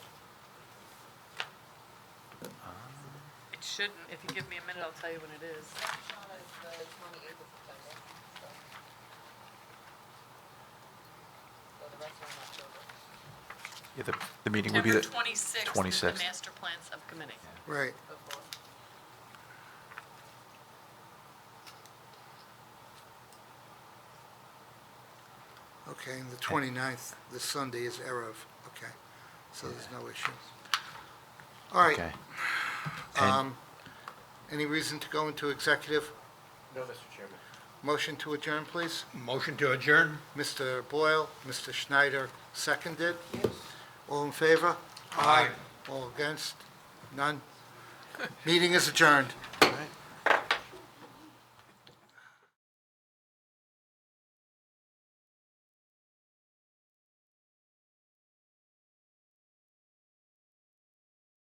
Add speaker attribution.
Speaker 1: shouldn't. If you give me a minute, I'll tell you when it is.
Speaker 2: Shawna is the twenty-eighth of September, so. So the rest are in October.
Speaker 3: Yeah, the, the meeting would be the,
Speaker 1: twenty-sixth
Speaker 3: 26th.
Speaker 1: plan subcommittee.
Speaker 4: Right.
Speaker 2: Before.
Speaker 4: Okay, and the 29th, the Sunday is Erev, okay, so there's no issue. All right,
Speaker 3: okay. And
Speaker 4: um, any reason to go into executive?
Speaker 5: No, Mr. Chairman.
Speaker 4: Motion to adjourn, please?
Speaker 5: Motion to adjourn?
Speaker 4: Mr. Boyle, Mr. Schneider, seconded? Yes. All in favor? Aye. All against? None? Meeting is adjourned.